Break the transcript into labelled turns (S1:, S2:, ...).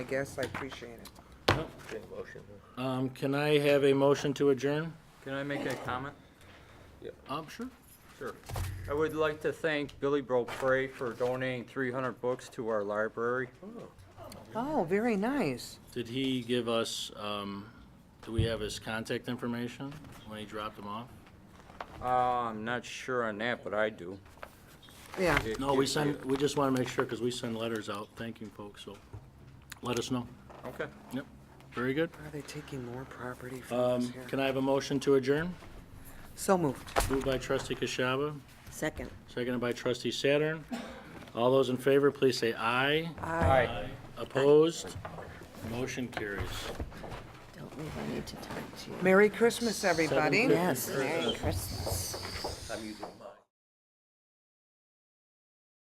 S1: I guess I appreciate it.
S2: Um, can I have a motion to adjourn?
S3: Can I make a comment?
S2: Um, sure.
S3: Sure. I would like to thank Billy Bropre for donating 300 books to our library.
S1: Oh, very nice.
S2: Did he give us, um, do we have his contact information when he dropped them off?
S3: Uh, I'm not sure on that, but I do.
S1: Yeah,
S3: If
S2: No,
S3: you-
S2: we send, we just wanna make sure, cause we send letters out thanking folks, so let us know.
S3: Okay.
S2: Yep, very good.
S1: are they taking more property from us
S2: Um,
S1: here?
S2: can I have a motion to adjourn?
S1: So moved.
S2: Moved by trustee Kashaba,
S1: Second.
S2: seconded by trustee Saturn. All those in favor, please say aye.
S3: Hi.
S2: Opposed? Motion carries.
S4: Don't leave, I need to talk to you.
S1: Merry Christmas, everybody.
S2: Seven fifty.
S4: Yes, Merry Christmas.